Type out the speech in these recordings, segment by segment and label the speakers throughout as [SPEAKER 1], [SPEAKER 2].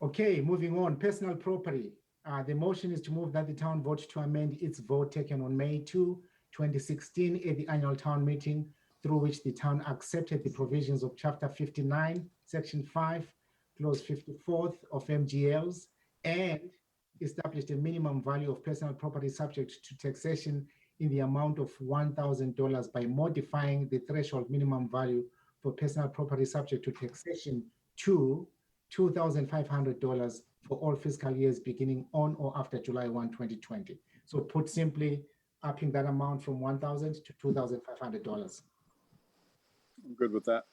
[SPEAKER 1] Okay, moving on, personal property. Uh, the motion is to move that the town vote to amend its vote taken on May 2, 2016 at the annual town meeting through which the town accepted the provisions of chapter 59, section 5, clause 54th of MGLs and established a minimum value of personal property subject to taxation in the amount of $1,000 by modifying the threshold minimum value for personal property subject to taxation to $2,500 for all fiscal years beginning on or after July 1, 2020. So put simply, upping that amount from 1,000 to $2,500.
[SPEAKER 2] I'm good with that.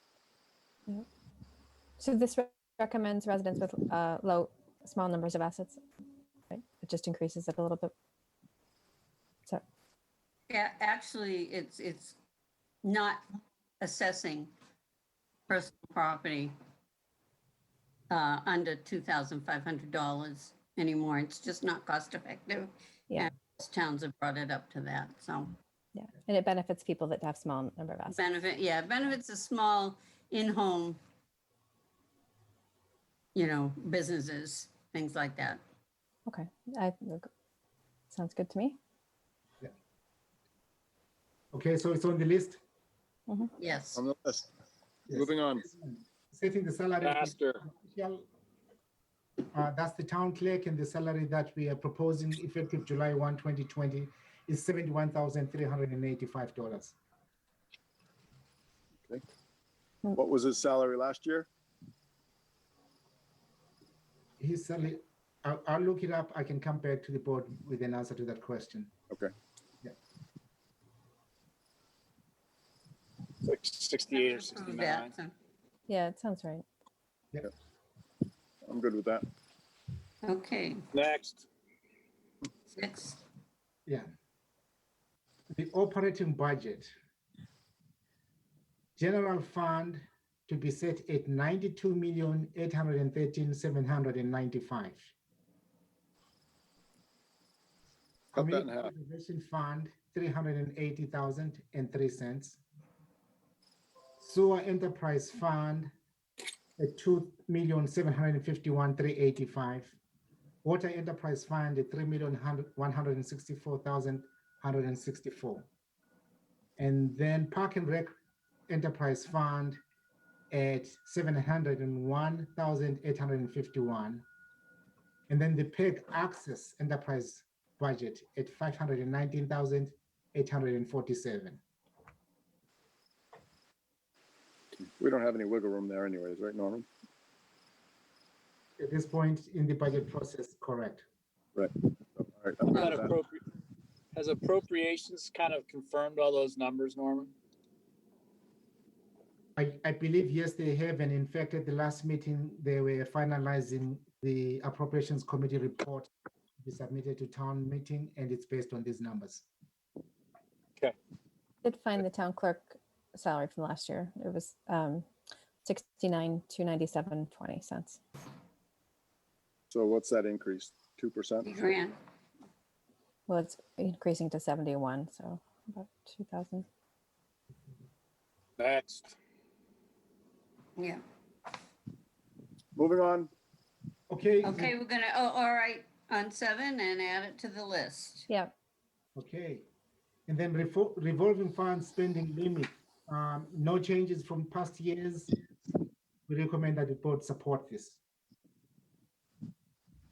[SPEAKER 3] So this re- recommends residents with uh, low, small numbers of assets. right? It just increases it a little bit.
[SPEAKER 4] Yeah, actually, it's, it's not assessing personal property uh, under $2,500 anymore. It's just not cost effective.
[SPEAKER 3] Yeah.
[SPEAKER 4] And most Towns have brought it up to that, so
[SPEAKER 3] Yeah, and it benefits people that have small number of assets.
[SPEAKER 4] benefit, yeah, benefits a small in-home, you know, businesses, things like that.
[SPEAKER 3] Okay, I, sounds good to me.
[SPEAKER 1] Okay, so it's on the list.
[SPEAKER 4] Yes.
[SPEAKER 2] On the list.
[SPEAKER 1] Yes.
[SPEAKER 2] Moving on.
[SPEAKER 1] Setting the salary. of the
[SPEAKER 5] Faster.
[SPEAKER 1] official, uh, That's the town clerk and the salary that we are proposing effective July 1, 2020 is $71,385.
[SPEAKER 2] What was his salary last year?
[SPEAKER 1] His salary, I'll, I'll look it up. I can come back to the board with an answer to that question.
[SPEAKER 5] It's like 68 or 69.
[SPEAKER 3] Yeah, it sounds right.
[SPEAKER 2] I'm good with that.
[SPEAKER 4] Okay,
[SPEAKER 5] Next,
[SPEAKER 4] six,
[SPEAKER 1] Yeah. The operating budget. General fund to be set at ninety-two million, eight hundred and thirteen, seven hundred and ninety-five.
[SPEAKER 2] Cut that in
[SPEAKER 1] Community
[SPEAKER 2] half.
[SPEAKER 1] Preservation Fund, three hundred and eighty thousand and three cents. Sewer Enterprise Fund, at two million, seven hundred and fifty-one, three eighty-five. Water Enterprise Fund, at three million, one hundred and sixty-four thousand, hundred and sixty-four. And then Park and Rec Enterprise Fund at seven hundred and one thousand, eight hundred and fifty-one. And then the PEG Access Enterprise budget at five hundred and nineteen thousand, eight hundred and forty-seven.
[SPEAKER 2] We don't have any wiggle room there anyways, right, Norman?
[SPEAKER 1] At this point in the budget process, correct?
[SPEAKER 2] All right, I'm good
[SPEAKER 5] That
[SPEAKER 2] with that.
[SPEAKER 5] appropri- has appropriations kind of confirmed all those numbers, Norman?
[SPEAKER 1] I, I believe, yes, they have, and in fact, at the last meeting, they were finalizing the appropriations committee report to be submitted to town meeting, and it's based on these numbers.
[SPEAKER 3] Did find the town clerk salary from last year. It was um, sixty-nine, two ninety-seven, twenty cents.
[SPEAKER 2] So what's that increase? 2%?
[SPEAKER 4] three grand.
[SPEAKER 3] Well, it's increasing to seventy-one, so about two thousand.
[SPEAKER 5] Next,
[SPEAKER 4] yeah.
[SPEAKER 2] Moving on.
[SPEAKER 1] Okay.
[SPEAKER 4] Okay, we're gonna, oh, all right, on seven and add it to the list.
[SPEAKER 3] Yeah,
[SPEAKER 1] Okay, and then revol- revolving fund spending limit, um, no changes from past years. We recommend that the board support this.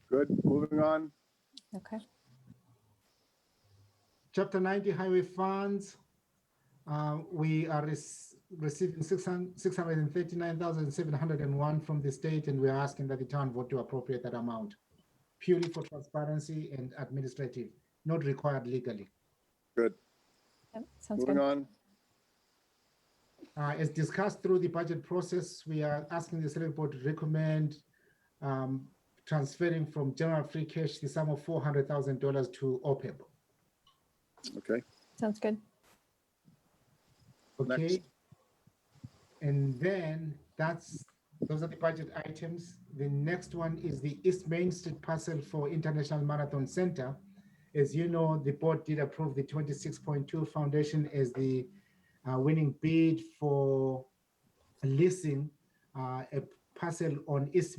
[SPEAKER 2] Good. Moving on.
[SPEAKER 3] okay.
[SPEAKER 1] Chapter 90 highway funds, uh, we are rec- receiving 600 639,701 from the state, and we're asking that the town vote to appropriate that amount purely for transparency and administrative, not required legally.
[SPEAKER 2] Good.
[SPEAKER 3] Yep, sounds
[SPEAKER 2] Moving
[SPEAKER 3] good.
[SPEAKER 2] on.
[SPEAKER 1] Uh, As discussed through the budget process, we are asking the select board to recommend um, transferring from general free cash the sum of $400,000 to E OPEB.
[SPEAKER 2] Okay.
[SPEAKER 3] Sounds good.
[SPEAKER 1] Okay.
[SPEAKER 2] Next.
[SPEAKER 1] And then that's, those are the budget items. The next one is the East Main Street parcel for International Marathon Center. As you know, the board did approve the twenty-six point two foundation as the uh, winning bid for leasing uh, a parcel on East